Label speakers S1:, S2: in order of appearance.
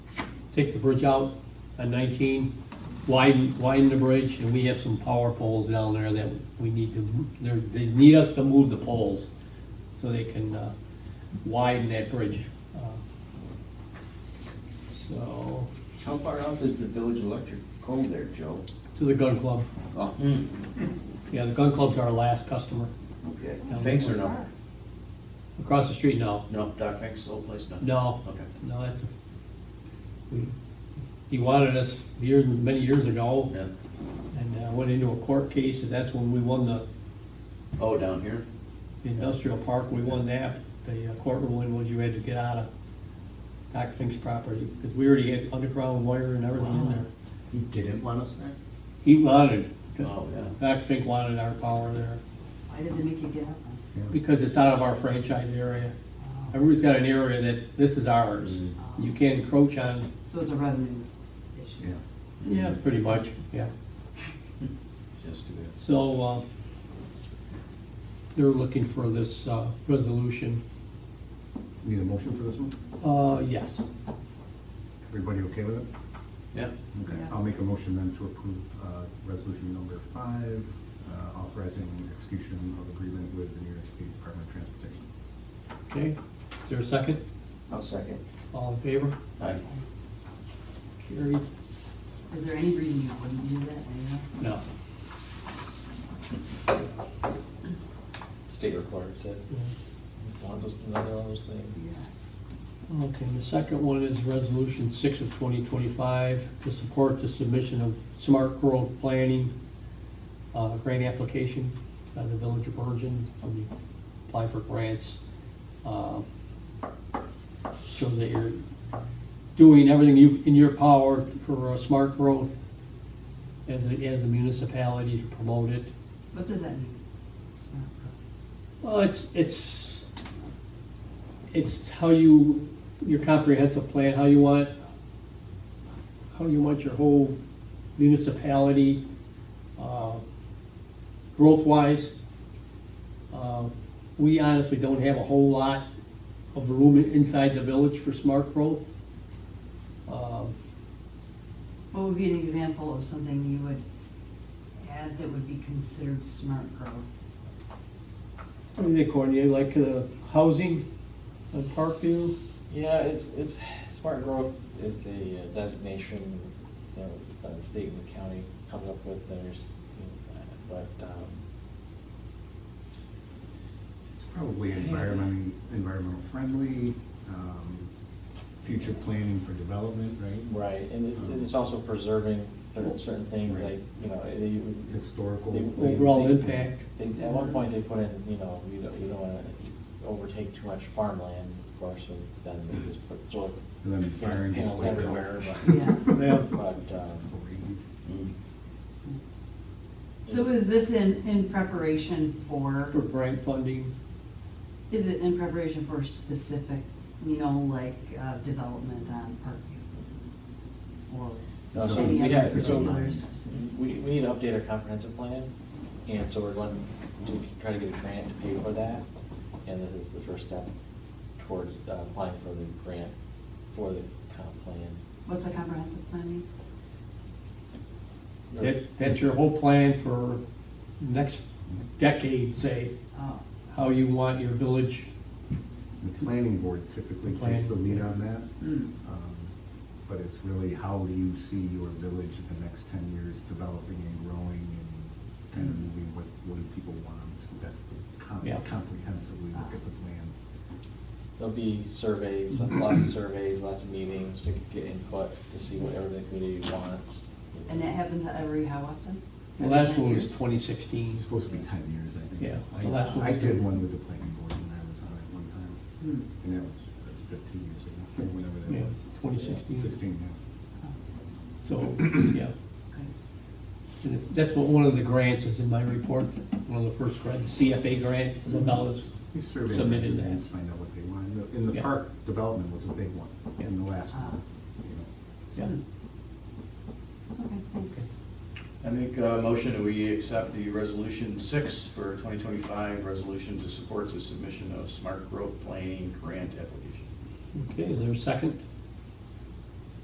S1: take the bridge out on nineteen, widen, widen the bridge, and we have some power poles down there that we need to, they're, they need us to move the poles so they can, uh, widen that bridge. Uh, So,
S2: How far out is the village electric pole there, Joe?
S1: to the gun club,
S2: Oh,
S3: Hmm.
S1: yeah, the gun club's our last customer.
S2: okay.
S3: Finks or no?
S1: Across the street, no,
S3: No, Doc Finks, old place, no?
S1: no,
S3: Okay.
S1: no, that's, we, he wanted us years, many years ago,
S3: Yeah.
S1: and uh, went into a court case, and that's when we won the
S3: Oh, down here?
S1: industrial park, we won that. The uh, court ruling was you had to get out of Doc Fink's property, because we already had underground wire and everything in there.
S4: He didn't want us there?
S1: He wanted,
S3: Oh, yeah.
S1: Doc Fink wanted our power there,
S5: Why did they make you get up?
S1: because it's out of our franchise area.
S5: Oh.
S1: Everybody's got an area that, this is ours,
S4: Mm-hmm.
S1: you can't encroach on,
S5: So it's a revenue issue.
S4: Yeah.
S1: yeah, pretty much, yeah.
S3: Just do it.
S1: So, uh, they're looking for this uh, resolution,
S4: Need a motion for this one?
S1: uh, yes.
S4: Everybody okay with it?
S3: Yeah.
S4: Okay,
S5: Yeah.
S4: I'll make a motion then to approve uh, resolution number five, uh, authorizing execution of agreement with the New York State Department of
S1: Okay,
S4: Transportation.
S1: is there a second?
S2: I'll second.
S1: All in favor?
S3: Aye.
S1: Carried.
S5: Is there any reason you wouldn't do that anyhow?
S1: No.
S6: State requires it. It's one of those, another one of those things.
S5: Yeah.
S1: Okay, and the second one is Resolution 6 of 2025 to support the submission of smart growth planning uh, grant application by the Village of Virgin, when you apply for grants. uh, Shows that you're doing everything you, in your power for uh, smart growth as a, as a municipality to promote it.
S5: What does that mean? It's not pro-
S1: Well, it's, it's, it's how you, your comprehensive plan, how you want, how you want your whole municipality, uh, growth-wise. Uh, We honestly don't have a whole lot of room inside the village for smart growth. Um,
S5: What would be an example of something you would add that would be considered smart growth?
S1: What do they call it, like uh, housing, uh, Parkview?
S6: Yeah, it's, it's, smart growth is a uh, designation, you know, that the state and the county comes up with, there's, you know, but, um,
S4: It's probably environment, environmental friendly, um, future planning for development, right?
S6: right, and it- and it's also preserving certain certain things,
S4: Right.
S6: like, you know, they-
S4: Historical.
S6: They-
S1: Overall impact.
S6: They, at one point, they put in, you know, you don't, you don't wanna overtake too much farmland, of course, and then they just put solar
S4: And then firing gets
S6: panels
S4: way
S6: everywhere,
S4: better.
S5: Yeah.
S1: Yeah.
S6: but, but, um,
S3: Hmm.
S5: So is this in, in preparation
S1: For
S5: for,
S1: grant funding.
S5: is it in preparation for specific, you know, like, uh, development on Parkview? Or
S6: No, so
S5: any
S6: we
S5: other
S6: have- so-
S5: particular specific?
S6: we, we need to update our comprehensive plan, and so we're going to try to get a grant to pay for that, and this is the first step towards uh, applying for the grant for the comp plan.
S5: What's the comprehensive plan mean?
S1: That, that's your whole plan for next decade, say,
S5: Oh,
S1: how you want your village,
S4: The planning board typically
S1: The planning
S4: takes the lead on that,
S5: mm,
S4: um, but it's really how do you see your village in the next ten years developing and growing and kind of moving what, what do people want? So That's the com-
S1: Yeah. Ah.
S4: comprehensively look at the plan.
S6: There'll be surveys, lots lots of surveys, lots of meetings to get input, to see what everything the community wants.
S5: and that happens every how often?
S1: well, that's
S5: Every
S1: what
S5: ten
S1: was
S5: years?
S1: twenty sixteen.
S4: It's supposed to be ten years, I think.
S1: Yeah,
S4: I-
S1: the last one
S4: I
S1: was-
S4: did one with the planning board when I was on it one time,
S5: Mm.
S4: and that was, that's fifteen years ago, or whenever
S1: Yeah,
S4: that was.
S1: 2016.
S4: Sixteen, yeah.
S1: So, yeah,
S5: Okay.
S1: and it- that's what one of the grants is in my report, one of the first grants, CFA grant, the dollars.
S4: We surveyed
S1: Submitted that.
S4: residents, find out what they want, And the- and the
S1: Yeah.
S4: park development was a big one, and the last
S5: Ah. Uh,
S4: one, you know.
S1: Yeah.
S5: Okay, thanks.
S3: I make a motion that we accept the resolution six for 2025, resolution to support the submission of smart growth planning grant application.
S1: Okay, is there a second?